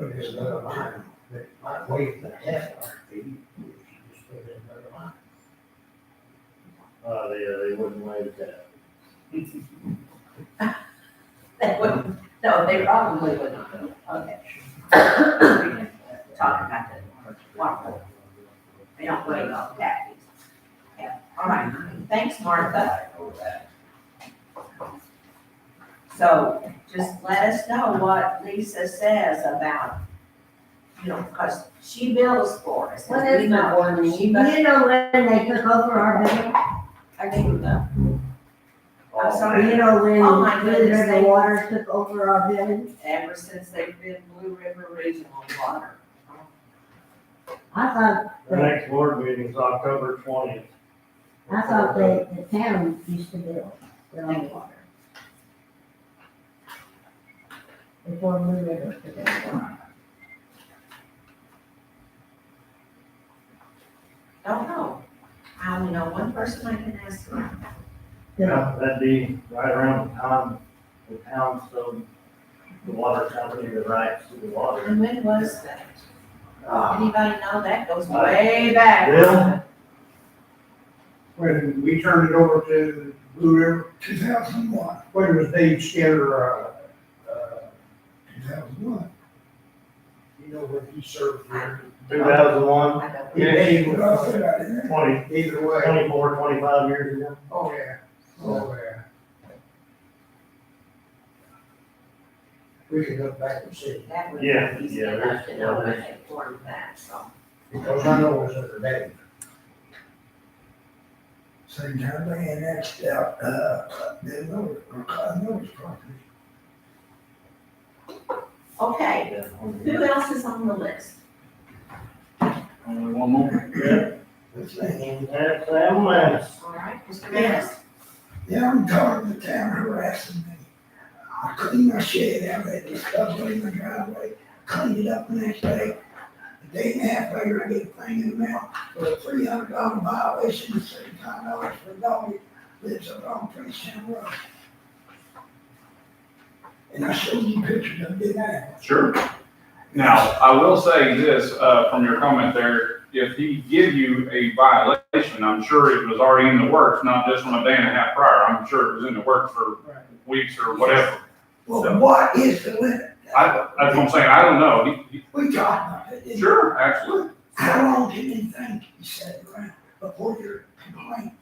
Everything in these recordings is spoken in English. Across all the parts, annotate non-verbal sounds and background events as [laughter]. there's another line, that might waive the half hour fee. You just put in another line. Uh, they, uh, they wouldn't waive that. They wouldn't, no, they probably would not, okay. Talking about the water, they don't wait all that. Yeah, all right, thanks, Martha. So just let us know what Lisa says about, you know, because she bills for us. What is We my know one she name? bu- You know when they took over our building? I do know. I'm sorry, You know when, Oh, my goodness, when they- the water took over our building? ever since they've been Blue River Regional Water. I thought, The next board meeting is October twentieth. I thought that the town used to build their own water. Before Blue River took over. Don't know. I only know one person I can ask. The- Yeah, That'd be right around the time, the town, so the water company, the rights to the water. And when was that? Ah. Uh, Anybody know that goes way back? Well- When we turned it over to Blue River, Two thousand one, when was Dave Skinner, uh, uh, two thousand one. you know, when he served there? Two thousand one, I don't- He paid, What I uh, said I didn't. twenty, either way. twenty-four, twenty-five years ago. Oh, yeah, oh, yeah. We can look back and see, That would Yeah, be easy yeah, enough to there's- know yeah, when they formed that, so. because I know it was under Dave. Same time they annexed out, uh, they lower, or Cotton Mills property. Okay, [laughs] Yeah. who else is on the list? Only one more. Yeah, This thing, and that's Sam Lance. All right, Mr. Manis? yeah, I'm tired of the town harassing me. I cleaned my shed out, they discovered it in my driveway, cleaned it up the next day. A day and a half later, I get a thing in the mail for a three hundred dollar violation, seventy-five dollars for a dog that lives up on Princeton Road. And I showed you pictures of it, didn't I? Sure. Now, I will say this, uh, from your comment there, if he give you a violation, I'm sure it was already in the works, not just from a day and a half prior. I'm sure it was in the works for weeks or whatever. Well, what is the limit? I, that's what I'm saying, I don't know. He- We talked about it. he- didn't we? Sure, absolutely. How long can you think you said around before your complaint?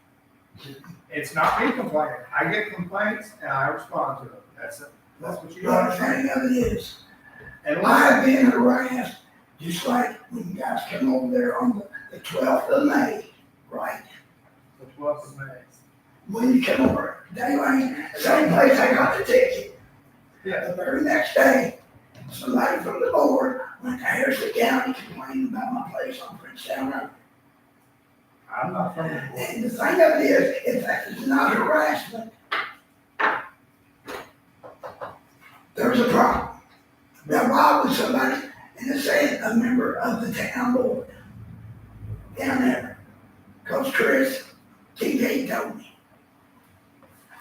It's not me complaining. I get complaints and I respond to them. That's it. That's what you Well, the got. thing of it is, And like, I've been harassed, just like when you guys came over there on the twelfth of May, right? the twelfth of May. When you came over, they went, same place I got the ticket. Yeah. The very next day, somebody from the board went to Harrison County complaining about my place on Prince Town Road. I'm not from the board. And the thing of it is, if that is not harassment, there's a problem. Now, why would somebody, and it's saying a member of the town board down there, Coach Chris, TJ told me.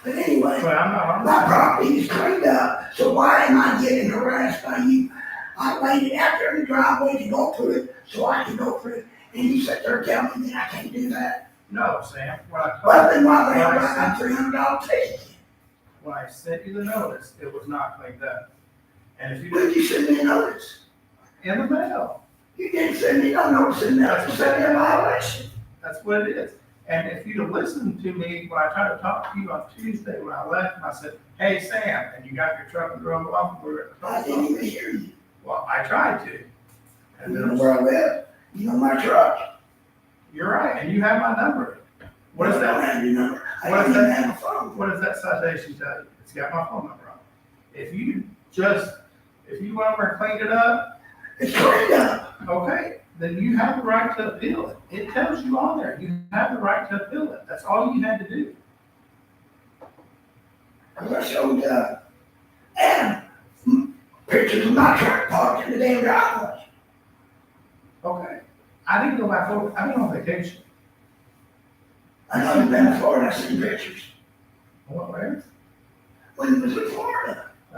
But anyway, But I'm not, I'm my not. property is cleaned up, so why am I getting harassed by you? I waited out there in the driveway to go through it, so I can go through it, and you sit there telling me that I can't do that? No, Sam, when I Well, then told, why the hell I got three hundred dollar ticket? when I sent you the notice, it was not cleaned up. And if you Where'd did, you send me a notice? in the mail, You didn't send me no notice in there, you sent me a violation. that's what it is. And if you'd have listened to me when I tried to talk to you on Tuesday, when I left, and I said, hey, Sam, and you got your truck and drove off, we were at the I post didn't office. even hear you. Well, I tried to. And You then know where I live, you know my truck. You're right, and you have my number. What is I don't that? have your number, I What don't is even that? have a phone. What does that citation tell you? It's got my phone number on it. If you just, if you went over and cleaned it up, It's cleaned up, okay, then you have the right to appeal it. It tells you on there, you have the right to appeal it. That's all you had to do. cause I showed, uh, Adam, mm, pictures of my truck parked in the damn driveway. Okay. I didn't go back over, I've been on vacation. I know you've been in Florida, I seen pictures, I went where? when you was in Florida.